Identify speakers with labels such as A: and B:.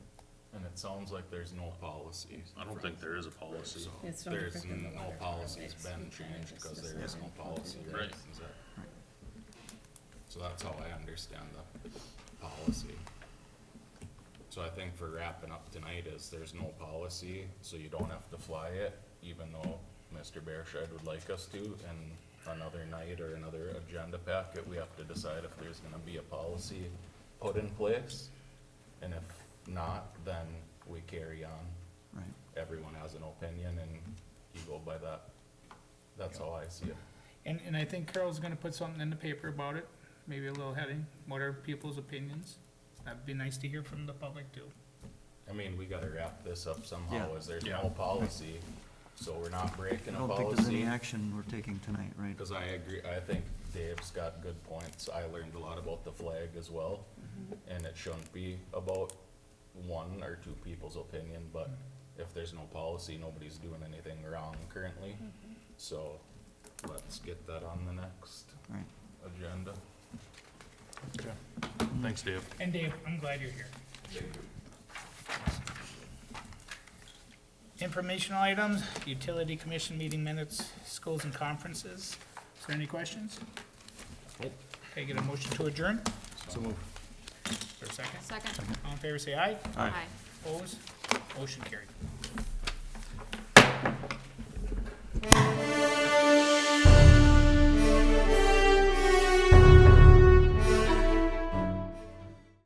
A: it sounds like there's no policy.
B: I don't think there is a policy.
A: So
C: It's no
A: there's
C: different than the
A: no
C: water
A: policy's
C: permits.
A: been
C: We kinda
A: changed
C: just
A: because there
C: decide
A: is no
C: what we
A: policy.
C: do.
A: right?
B: Right.
A: Is that- So that's how I understand the policy. So I think for wrapping up tonight is there's no policy, so you don't have to fly it, even though Mr. Bearshed would like us to, and another night or another agenda packet, we have to decide if there's gonna be a policy put in place. And if not, then we carry on
D: right?
A: everyone has an opinion and you go by that. That's how I see it.
E: And, and I think Carol's gonna put something in the paper about it, maybe a little heading, what are people's opinions? That'd be nice to hear from the public too.
A: I mean, we gotta wrap this up somehow,
D: Yeah.
A: as there's
B: Yeah.
A: no policy, so we're not breaking
D: I
A: a
D: don't think there's any
A: policy.
D: action we're taking tonight, right?
A: Cause I agree, I think Dave's got good points. I learned a lot about the flag as well.
D: Mm-hmm.
A: And it shouldn't be about one or two people's opinion, but if there's no policy, nobody's doing anything wrong currently.
D: Mm-hmm.
A: So let's get that on the next
D: Right.
A: agenda.
B: Thanks, Dave.
E: And Dave, I'm glad you're here. Informational items, utility commission meeting minutes, schools and conferences. Is there any questions? Okay, get a motion to adjourn?
A: So move.
E: For a second?
C: Second.
E: All in favor, say aye.
C: Aye.
E: Opposed? Motion carried.